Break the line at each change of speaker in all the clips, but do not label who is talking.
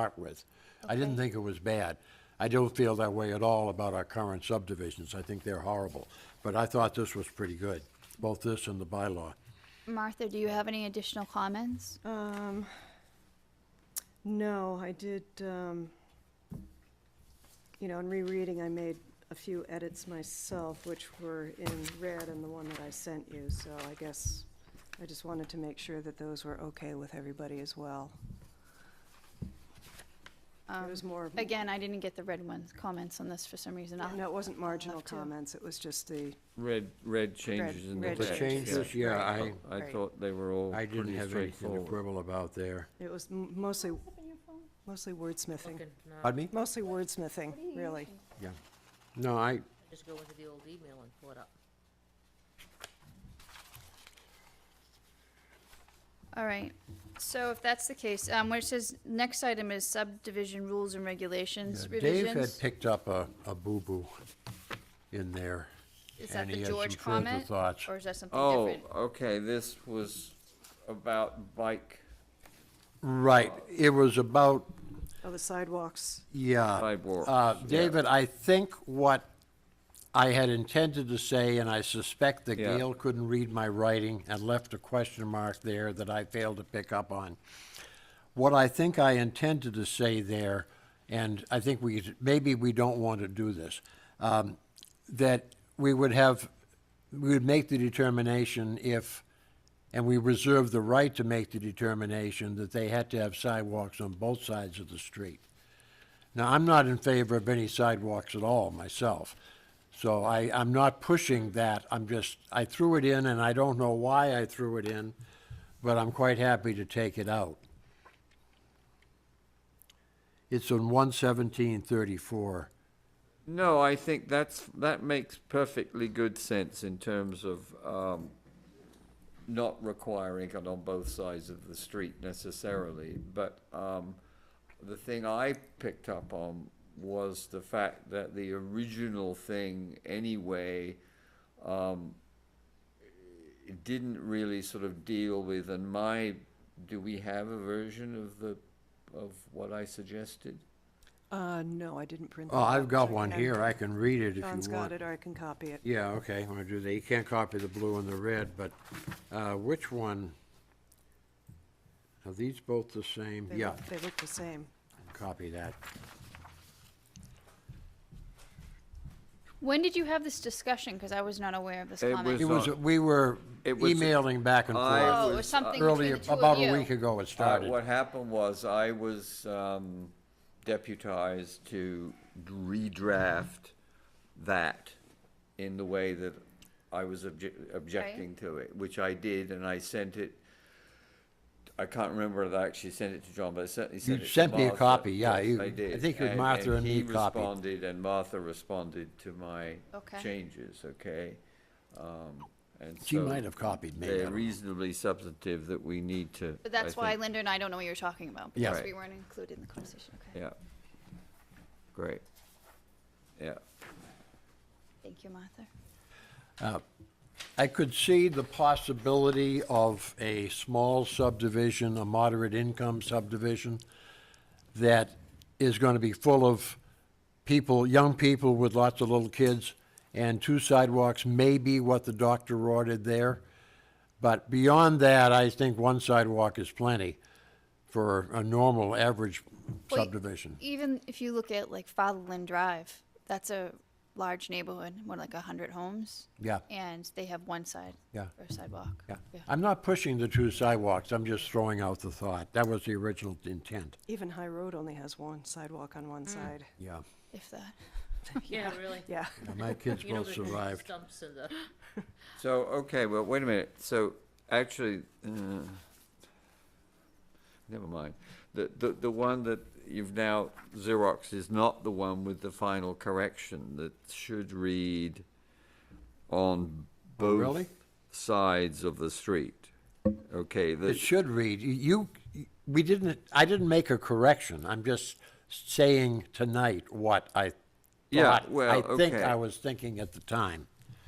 start with. I didn't think it was bad. I don't feel that way at all about our current subdivisions. I think they're horrible. But I thought this was pretty good, both this and the bylaw.
Martha, do you have any additional comments?
Um, no, I did, um, you know, in rereading, I made a few edits myself, which were in red and the one that I sent you, so I guess I just wanted to make sure that those were okay with everybody as well. It was more,
Um, Again, I didn't get the red ones, comments on this for some reason. I'll-
no, it wasn't marginal
have to-
comments, it was just the,
Red, red changes in the
red
text.
changes.
yeah.
The changes,
yeah, I-
I
Right.
thought they were all
I didn't
pretty
have anything to
straightforward.
quibble about there.
it was m- mostly, mostly wordsmithing,
Pardon me?
mostly wordsmithing, really.
Yeah. No, I,
Just go into the old email and pull it up.
All right, so if that's the case, um, where it says, next item is subdivision rules and regulations
Dave had
revisions.
picked up a, a boo-boo in there.
Is that
and he
the
had some
George
further
comment?
thoughts.
Or is that something
Oh,
different?
okay, this was about bike,
Right, it was about,
Oh, the sidewalks,
yeah.
Sidewalks,
Uh,
yeah.
David, I think what I had intended to say, and I suspect that
Yeah.
Gail couldn't read my writing and left a question mark there that I failed to pick up on. What I think I intended to say there, and I think we, maybe we don't want to do this, um, that we would have, we would make the determination if, and we reserve the right to make the determination that they had to have sidewalks on both sides of the street. Now, I'm not in favor of any sidewalks at all myself, so I, I'm not pushing that. I'm just, I threw it in, and I don't know why I threw it in, but I'm quite happy to take it out. It's on one seventeen thirty-four.
No, I think that's, that makes perfectly good sense in terms of, um, not requiring it on both sides of the street necessarily, but, um, the thing I picked up on was the fact that the original thing anyway, um, it didn't really sort of deal with, and my, do we have a version of the, of what I suggested?
uh, no, I didn't print that.
Oh, I've
out,
got
so I
one
can-
here. I can read it if you want.
John's got it, or I can copy it.
Yeah, okay, I'm gonna do that. You can't copy the blue and the red, but, uh, which one? Are these both the same?
They
Yeah,
look- They look the same.
copy that.
When did you have this discussion? Because I was not aware of this
It
comment.
It
It's
was,
not-
we were
It was-
emailing back and
I-
forth.
Oh, it
was,
was
uh,
something between
Earlier,
the two
about
of
a week
you.
ago it
Uh,
started.
What happened was I was um, deputized to redraft that in the way that I was obje- objecting to it, which I did, and I sent it. I can't remember if I actually sent it to John, but I certainly sent it to
sent me a
Martha.
copy, yeah,
Yes,
you-
I
I
did.
think it was Martha and
he
me copied.
responded, and Martha responded to my
Okay.
changes, okay? Um, and
She
so
might have copied me. I
They're
don't know.
reasonably substantive that we need to.
But that's why
think,
Linda and I don't know what you're talking about,
Yeah.
because
Right.
we weren't included in the conversation. Okay,
Yeah. Great. Yeah.
thank you, Martha.
I could see the possibility of a small subdivision, a moderate income subdivision, that is going to be full of people, young people with lots of little kids, and two sidewalks may be what the doctor ordered there. But beyond that, I think one sidewalk is plenty for a normal, average
Well, y-
subdivision.
Even if you look at like Fatherland Drive, that's a large neighborhood, what, like a hundred homes?
Yeah.
And they have one side.
Yeah.
Or sidewalk.
Yeah. I'm not pushing the two sidewalks, I'm just throwing out the thought. That was the original intent.
Even High Road only has one sidewalk on one side.
Yeah.
If that.
Yeah, really.
Yeah,
My kids
You know,
both
the
survived.
Stumps and the,
So, okay, well, wait a minute. So, actually, uh, never mind. The, the, the one that you've now Xerox is not the one with the final correction that should read on
Oh,
both
really?
sides of the street. Okay, the,
It should read, you, we didn't, I didn't make a correction, I'm just saying tonight what I
Yeah,
thought,
well,
I think
okay.
I was thinking at the time.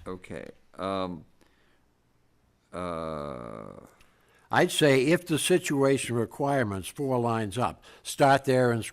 okay. Um, uh,
I'd say if the situation requirements, four lines up, start there and scroll